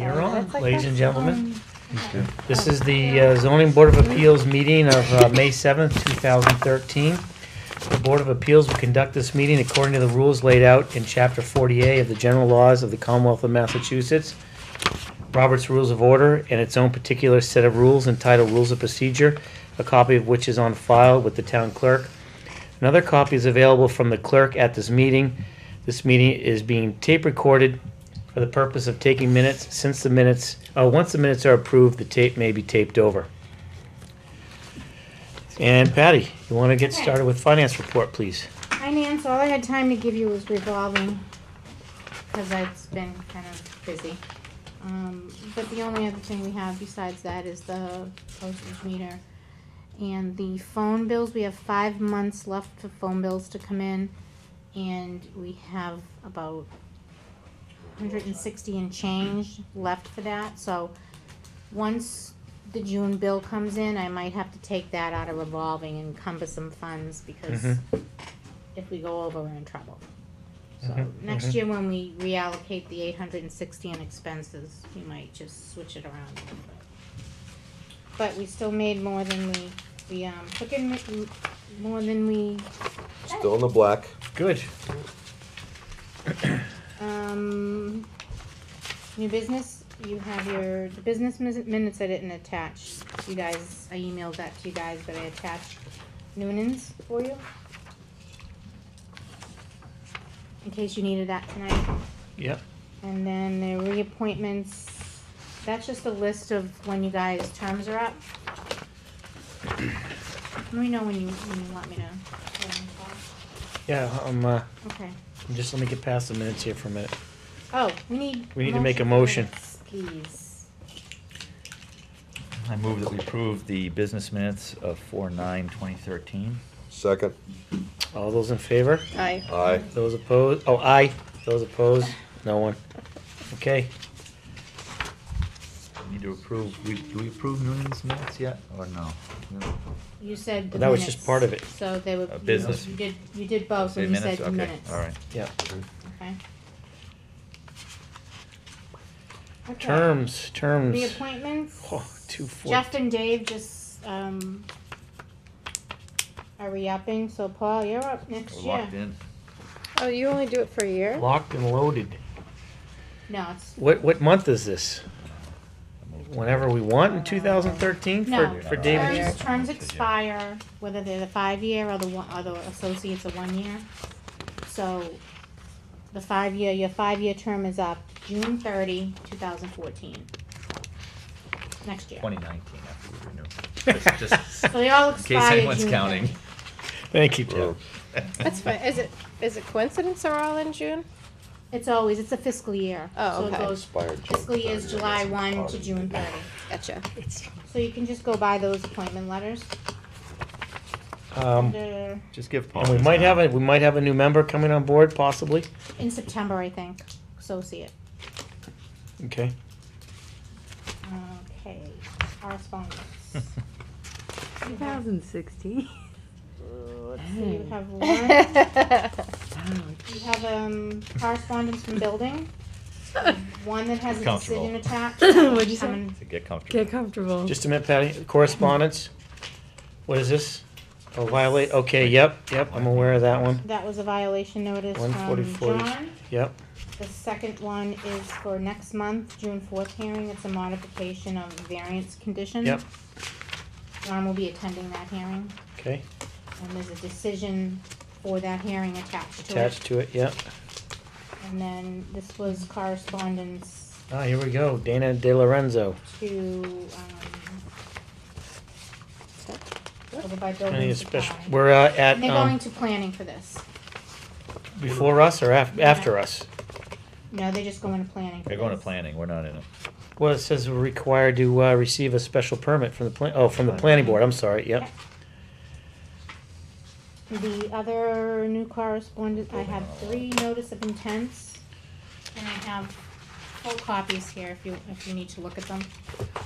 like Ladies that? and gentlemen, Okay. this is the uh, zoning board of appeals meeting of uh, May 7th, 2013. The Board of Appeals will conduct this meeting according to the rules laid out in Chapter 40A of the General Laws of the Commonwealth of Massachusetts, Robert's Rules of Order, and its own particular set of rules entitled Rules of Procedure, a copy of which is on file with the town clerk. Another copy is available from the clerk at this meeting. This meeting is being tape recorded for the purpose of taking minutes since the minutes, uh, once the minutes are approved, the tape may be taped over. And Patty, you want to get started with finance report, please? Finance, all I had time to give you was revolving, because it's been kind of busy. Um, but the only other thing we have besides that is the postage meter. And the phone bills, we have five months left for phone bills to come in, and we have about hundred and sixty and change left for that, so once the June bill comes in, I might have to take that out of revolving and cumbersome funds, because Mhm. if we go over, we're in trouble. So Mhm, next mhm. year, when we reallocate the eight hundred and sixty in expenses, we might just switch it around a little bit. But we still made more than we, we, um, took in m- more than we, Still in the black. Good. um, new business, you have your, the business mis- minutes I didn't attach. You guys, I emailed that to you guys, but I attached Noonan's for you. In case you needed that tonight. Yep. And then the reappointments, that's just a list of when you guys' terms are up. Let me know when you, when you want me to. Yeah, I'm, uh, Okay. just let me get past the minutes here for a minute. Oh, we need. We need to make a motion. for minutes, I move that we approve the business minutes of four nine twenty thirteen. Second. All those in favor? Please. Aye. Aye. Those opposed? Oh, aye. Those opposed? No one. Okay. Need to approve, we, do we approve Noonan's minutes yet, or no? No. You said the minutes. That was just part of it. So they were. Uh, business. You did, you did both, Say and you Oh, said the Okay, minutes. All right. Yeah. Okay. Okay. Terms, terms. Reappointments. Oh, two four. Jeff and Dave just um, are re-upping, so Paul, you're up next We're year. locked in. Oh, you only do it for a year? Locked and loaded. No, it's What, what month is this? I move to- Whenever we want in 2013 no. for, for David? Terms, Jeff? terms expire whether they're the five-year or the one, or the associates are one-year. So the five-year, your five-year term is up June 30, 2014. Next year. Twenty nineteen after we renew. Just- just So they all In expire. case anyone's June counting. 30. Thank you, Mm. Jeff. That's fine. Is it is it coincidence they're all in June? It's always it's a fiscal year. Oh, so okay. it goes fiscal year is July 1 to June 30. Gotcha. So you can just go buy those appointment letters. Um, They're Just give Paul. and we his might have time. a, we might have a new member coming on board possibly. in September, I think. Associate. Okay. Okay. Correspondence. You have- 2016. so you have one. That's You have um correspondence from building. One that has a Comfortable. decision attached. Um, What'd you say? Coming- To get comfortable. Get comfortable. Just a minute, Patty. Correspondence. What is this? Oh, violate. Okay. Yep. Yep. I'm aware of that one. That was a violation notice from 144. John. Yep. The second one is for next month, June fourth hearing. It's a modification of variance condition. Yep. John will be attending that hearing. Okay. And there's a decision for that hearing attached to it. Attached to it. Yep. And then this was correspondence Ah, here we go. Dana De Lorenzo. to, um, over by I need building a special. supply. We're uh, at And they're um, going to planning for this. before us or af- after us. No, they're just going to planning. for They're going to this. planning, we're not in it. Well, it says we're required to uh, receive a special permit from the plan. Oh, from the planning board. I'm sorry. Yep. The other new correspondence, I have three notice of intents, and I have full copies here if you, if you need to look at them.